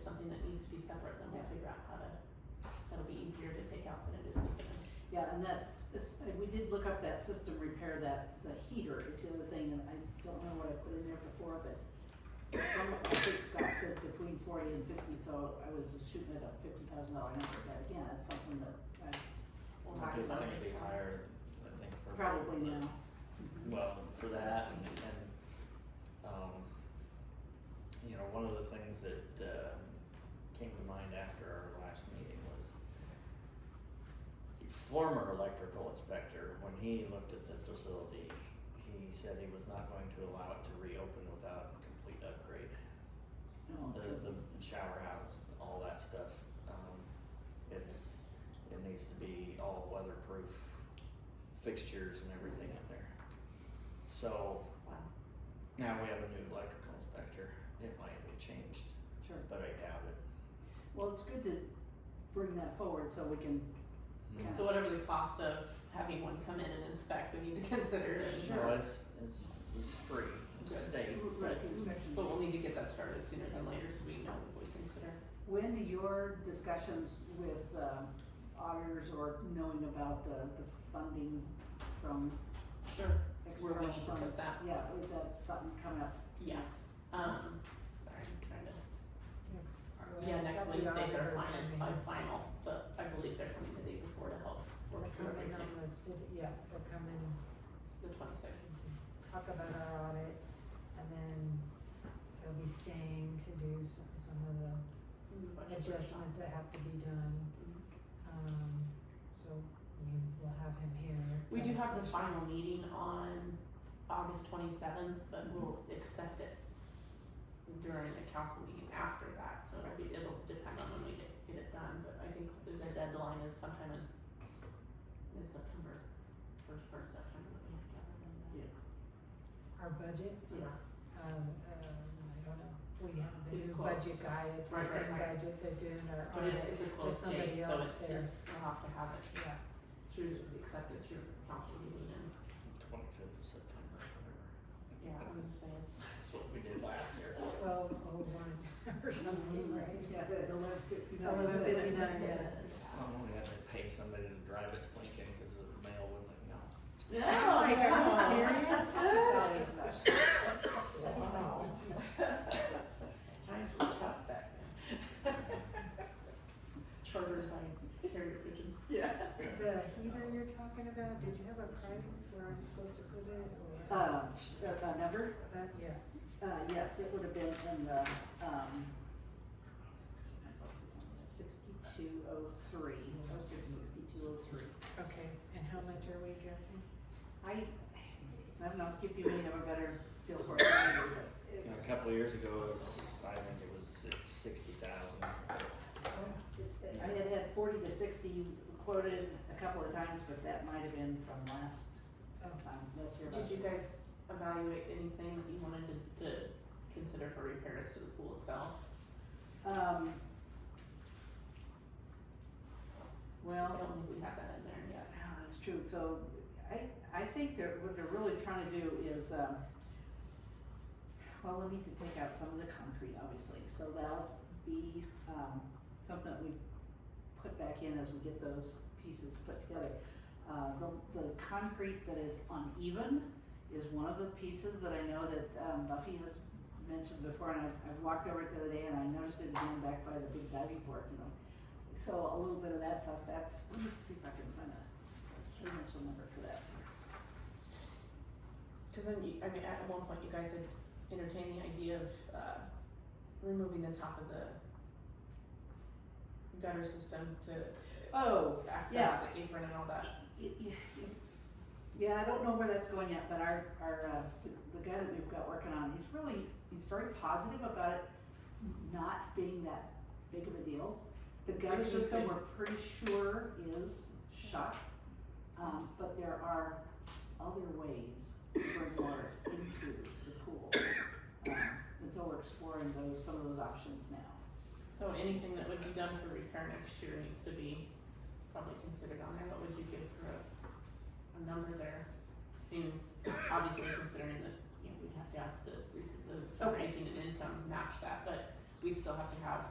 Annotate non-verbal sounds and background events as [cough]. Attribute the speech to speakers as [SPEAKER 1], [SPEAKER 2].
[SPEAKER 1] something that needs to be separate, then we'll
[SPEAKER 2] Yeah.
[SPEAKER 1] figure out how to, that'll be easier to take out than it is to put in.
[SPEAKER 2] Yeah, and that's, this- uh, we did look up that system repair, that, the heater is the other thing, and I don't know what I put in there before, but some, I think Scott said between forty and sixty, so I was just shooting at a fifty thousand dollar number, but again, it's something that I
[SPEAKER 1] We'll
[SPEAKER 3] It's
[SPEAKER 1] talk
[SPEAKER 3] definitely
[SPEAKER 1] about it
[SPEAKER 3] gonna
[SPEAKER 1] as
[SPEAKER 3] be
[SPEAKER 1] well.
[SPEAKER 3] higher, I think, for.
[SPEAKER 2] probably know.
[SPEAKER 3] Well, for that and, and, um, you know, one of the things that, uh, came to mind after our last meeting was the former electrical inspector, when he looked at the facility, he said he was not going to allow it to reopen without complete upgrade.
[SPEAKER 2] No,
[SPEAKER 3] The, the shower house, all that stuff, um, it's, it needs to be all weatherproof fixtures and everything in there. So,
[SPEAKER 1] Wow.
[SPEAKER 3] now we have a new electrical inspector, it might be changed,
[SPEAKER 2] sure.
[SPEAKER 3] but I doubt it.
[SPEAKER 2] Well, it's good to bring that forward so we can, Yeah.
[SPEAKER 1] So whatever the cost of having one come in and inspect, we need to [laughs] consider, and-
[SPEAKER 3] No, it's, it's, it's free, it's
[SPEAKER 1] Good.
[SPEAKER 3] state,
[SPEAKER 2] right,
[SPEAKER 3] but
[SPEAKER 2] the inspection.
[SPEAKER 1] but we'll need to get that started sooner than later, so we know what we consider.
[SPEAKER 2] When do your discussions with uh, auditors or knowing about the, the funding from
[SPEAKER 1] Sure. Where we
[SPEAKER 2] external
[SPEAKER 1] need to put
[SPEAKER 2] funds?
[SPEAKER 1] that.
[SPEAKER 2] Yeah, is that something coming up?
[SPEAKER 1] Yes, um, sorry, I'm trying to.
[SPEAKER 4] Next-
[SPEAKER 1] Yeah, next
[SPEAKER 4] that'll be our
[SPEAKER 1] Wednesday's our
[SPEAKER 4] other
[SPEAKER 1] final,
[SPEAKER 4] meeting.
[SPEAKER 1] our final, but I believe they're coming the day before to help
[SPEAKER 4] They'll
[SPEAKER 1] work through
[SPEAKER 4] come in
[SPEAKER 1] everything,
[SPEAKER 4] on the city, yeah, they'll come in
[SPEAKER 1] the twenty-sixth.
[SPEAKER 4] to talk about our audit, and then they'll be staying to do some, some of the adjustments that have to be done.
[SPEAKER 1] Mm-hmm.
[SPEAKER 4] Um, so, I mean, we'll have him here.
[SPEAKER 1] We do
[SPEAKER 4] That's
[SPEAKER 1] have the
[SPEAKER 4] questions.
[SPEAKER 1] final meeting on August twenty-seventh, but we'll accept it during the council meeting after that, so it'll be, it'll depend on when we get, get it done, but I think the the deadline is sometime in, in September, first part of September, that we have to have it done.
[SPEAKER 4] Our budget,
[SPEAKER 1] Yeah.
[SPEAKER 4] um, um, I don't know, we have the
[SPEAKER 1] It's
[SPEAKER 4] new
[SPEAKER 1] closed.
[SPEAKER 4] budget guy, it's the
[SPEAKER 1] Right, right,
[SPEAKER 4] same guy
[SPEAKER 1] right.
[SPEAKER 4] that they're doing our
[SPEAKER 1] But it's,
[SPEAKER 4] audit,
[SPEAKER 1] it's a
[SPEAKER 4] just
[SPEAKER 1] closed
[SPEAKER 4] somebody
[SPEAKER 1] date, so
[SPEAKER 4] else
[SPEAKER 1] it's,
[SPEAKER 4] there.
[SPEAKER 1] it's, we'll have to have it
[SPEAKER 4] yeah.
[SPEAKER 1] through, accepted through the council meeting and,
[SPEAKER 3] twenty-fifth of September, whatever.
[SPEAKER 1] yeah, I'm just saying, it's,
[SPEAKER 3] That's what we did last year.
[SPEAKER 4] twelve oh one [laughs] or something, right?
[SPEAKER 1] Mm-hmm.
[SPEAKER 2] Yeah, the eleven fifty-nine.
[SPEAKER 4] Eleven fifty-nine, yeah.
[SPEAKER 3] Oh, we had to pay somebody to drive it to Lincoln, cause the mail wouldn't let me out.
[SPEAKER 4] [laughs] Like, Oh are you serious?
[SPEAKER 2] serious?
[SPEAKER 5] Times were tough back
[SPEAKER 1] chartered by Carrier Pigeon.
[SPEAKER 5] then. Yeah.
[SPEAKER 4] The heater you're talking about, did you have a price where I'm supposed to put it or?
[SPEAKER 2] Um, sh- [laughs] uh, uh, number,
[SPEAKER 4] That, yeah,
[SPEAKER 2] uh, yes, it would have been in the, um, sixty-two oh three, oh six, sixty-two oh three.
[SPEAKER 4] okay, and how much are we guessing?
[SPEAKER 2] I, I don't know, Skip, you may have a better feel for it than I do, but
[SPEAKER 3] You
[SPEAKER 2] it-
[SPEAKER 3] know, a couple of years ago, it was, I think it was six, sixty thousand.
[SPEAKER 2] I had had forty to sixty quoted a couple of times, but that might have been from last,
[SPEAKER 4] Oh,
[SPEAKER 2] um, let's hear about.
[SPEAKER 1] Did you guys evaluate anything that you wanted to, to consider for repairs to the pool itself?
[SPEAKER 2] Um.
[SPEAKER 1] I
[SPEAKER 2] Well,
[SPEAKER 1] don't think we have that in there
[SPEAKER 2] yeah,
[SPEAKER 1] yet.
[SPEAKER 2] that's true, so I, I think they're, what they're really trying to do is, um, well, we need to take out some of the concrete, obviously, so that'll be, um, something that we put back in as we get those pieces put together. Uh, the, the concrete that is uneven is one of the pieces that I know that, um, Buffy has mentioned before, and I've, I've walked over it the other day, and I noticed it again back by the big diving board, you know. So a little bit of that stuff, that's, let me see if I can find a sequential number for that.
[SPEAKER 1] Cause then you, I mean, at one point you guys had entertained the idea of, uh, removing the top of the gutter system to
[SPEAKER 2] Oh,
[SPEAKER 1] access
[SPEAKER 2] yeah.
[SPEAKER 1] the apron and all that.
[SPEAKER 2] y- y- y- yeah, I don't know where that's going yet, but our, our, uh, the- the guy that we've got working on, he's really, he's very positive about it not being that big of a deal. The gutter
[SPEAKER 1] If you
[SPEAKER 2] system,
[SPEAKER 1] could-
[SPEAKER 2] we're pretty sure is shut, um, but there are other ways to bring water into the pool. Um, And so we're exploring those, some of those options now.
[SPEAKER 1] So anything that would be done for repair next year needs to be probably considered on there, what would you give for a, a number there? I mean, obviously considering that, you know, we'd have to have the, the fundraising and income match that, but we'd still have to have